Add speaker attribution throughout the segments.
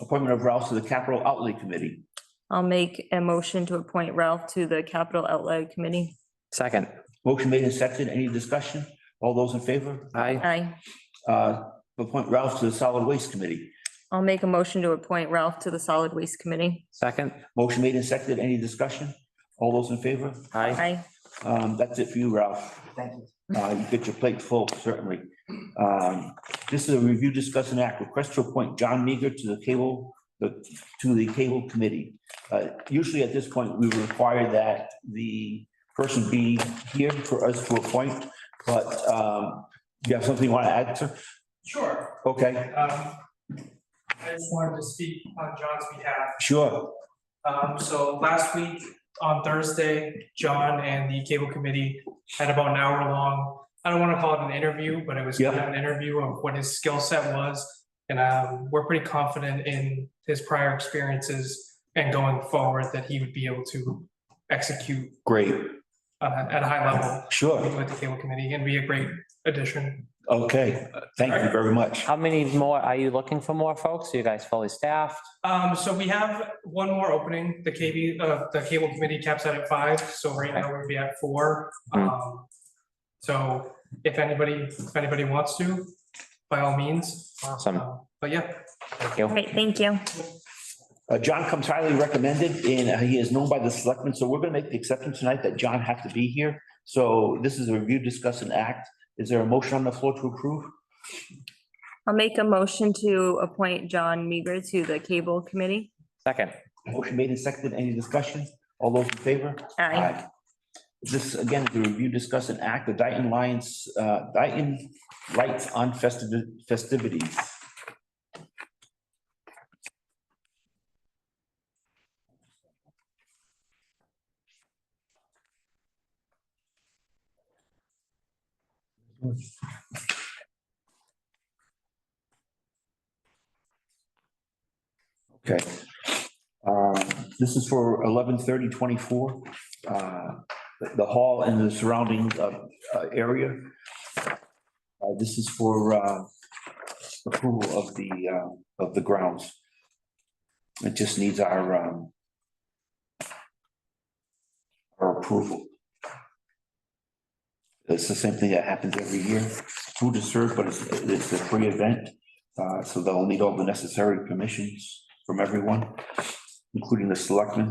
Speaker 1: appointment of Rouse to the Capital Outlay Committee.
Speaker 2: I'll make a motion to appoint Ralph to the Capital Outlay Committee.
Speaker 3: Second,
Speaker 1: Motion made and seconded. Any discussion? All those in favor?
Speaker 3: aye.
Speaker 2: Aye.
Speaker 1: Uh, appoint Rouse to the Solid Waste Committee.
Speaker 2: I'll make a motion to appoint Ralph to the Solid Waste Committee.
Speaker 3: Second,
Speaker 1: Motion made and seconded. Any discussion? All those in favor?
Speaker 3: aye.
Speaker 2: Aye.
Speaker 1: Um, that's it for you, Ralph. Thank you. Uh, you get your plate full, certainly. Um, this is a review, discuss and act request to appoint John Meager to the cable, the, to the cable committee. Uh, usually at this point, we require that the person be here for us to appoint, but, um, you have something you want to add, sir?
Speaker 4: Sure.
Speaker 1: Okay,
Speaker 4: um, I just wanted to speak on John's behalf.
Speaker 1: sure.
Speaker 4: Um, So last week, on Thursday, John and the cable committee had about an hour long, I don't want to call it an interview, but it was kind of an interview of what his skill set was. And um, we're pretty confident in his prior experiences and going forward that he would be able to execute
Speaker 1: Great,
Speaker 4: uh, at a high level
Speaker 1: sure.
Speaker 4: with the cable committee and be a great addition.
Speaker 1: Okay, thank you very much.
Speaker 3: How many more, are you looking for more folks? Are you guys fully staffed?
Speaker 4: Um, so we have one more opening, the KB, uh, the cable committee caps out at five, so right now we'd be at four.
Speaker 3: Hmm.
Speaker 4: Um, so if anybody, if anybody wants to, by all means.
Speaker 3: Awesome.
Speaker 4: Um, But yeah,
Speaker 3: Thank you.
Speaker 2: Great, thank you.
Speaker 1: Uh, John comes highly recommended and uh, he is known by the selectmen, so we're gonna make the exception tonight that John has to be here. So this is a review, discuss and act. Is there a motion on the floor to approve?
Speaker 2: I'll make a motion to appoint John Meager to the Cable Committee.
Speaker 3: Second,
Speaker 1: Motion made and seconded. Any discussion? All those in favor?
Speaker 2: Aye.
Speaker 1: This again, is the review, discuss and act, the Dayton Lions, uh, Dayton Lights on Festivi- festivities. Okay. Um, This is for eleven thirty twenty-four, uh, the hall and the surrounding uh, uh, area. Uh, This is for uh, approval of the, uh, of the grounds. It just needs our um, our approval. It's the same thing that happens every year. Food is served, but it's, it's a free event. Uh, So they'll need all the necessary permissions from everyone, including the selectmen.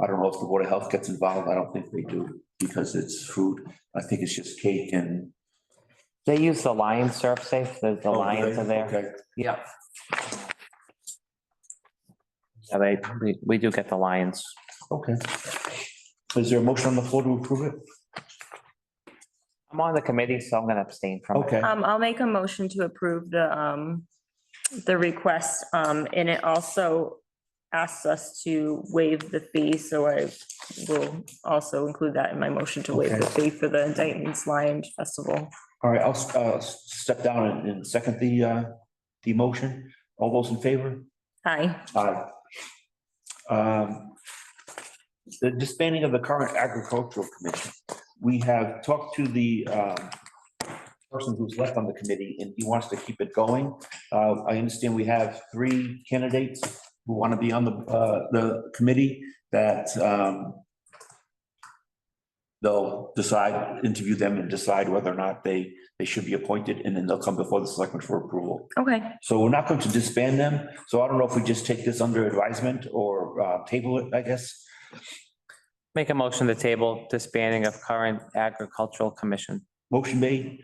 Speaker 1: I don't know if the Board of Health gets involved. I don't think they do because it's food. I think it's just cake and. Oh,
Speaker 3: they use the lion surf safe, the, the lions are there.
Speaker 1: Okay.
Speaker 3: Yep. Yeah, they, we- we do get the lions.
Speaker 1: Okay. Is there a motion on the floor to approve it?
Speaker 3: I'm on the committee, so I'm gonna abstain from it.
Speaker 1: Okay,
Speaker 2: Um, I'll make a motion to approve the, um, the request, um, and it also asks us to waive the fee, so I will also include that in my motion to waive the fee for the Dayton's Lions Festival.
Speaker 1: all right, I'll uh, step down and- and second the, uh, the motion. All those in favor?
Speaker 2: Aye.
Speaker 1: Aye. Um, The disbanding of the current agricultural commission. We have talked to the um, person who's left on the committee and he wants to keep it going. Uh, I understand we have three candidates who want to be on the, uh, the committee that um, they'll decide, interview them and decide whether or not they, they should be appointed and then they'll come before the selectmen for approval.
Speaker 2: Okay,
Speaker 1: So we're not going to disband them, so I don't know if we just take this under advisement or uh, table it, I guess.
Speaker 3: Make a motion to table disbanding of current agricultural commission.
Speaker 1: Motion made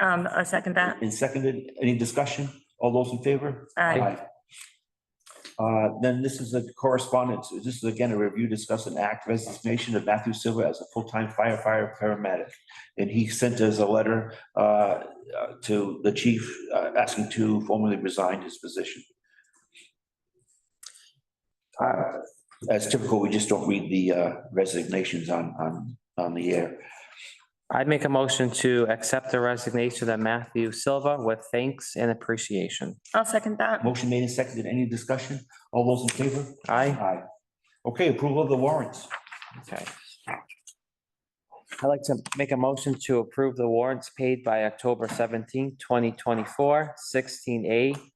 Speaker 2: um, I second that.
Speaker 1: and seconded. Any discussion? All those in favor?
Speaker 2: Aye.
Speaker 1: Uh, Then this is a correspondence. This is again a review, discuss an act resignation of Matthew Silva as a full-time firefighter paramedic. And he sent us a letter uh, uh, to the chief uh, asking to formally resign his position. Uh, As typical, we just don't read the uh, resignations on, on, on the air.
Speaker 3: I'd make a motion to accept the resignation of Matthew Silva with thanks and appreciation.
Speaker 2: I'll second that.
Speaker 1: Motion made and seconded. Any discussion? All those in favor?
Speaker 3: Aye.
Speaker 1: Aye. Okay, approval of the warrants.
Speaker 3: Okay. I'd like to make a motion to approve the warrants paid by October seventeenth, twenty twenty-four, sixteen A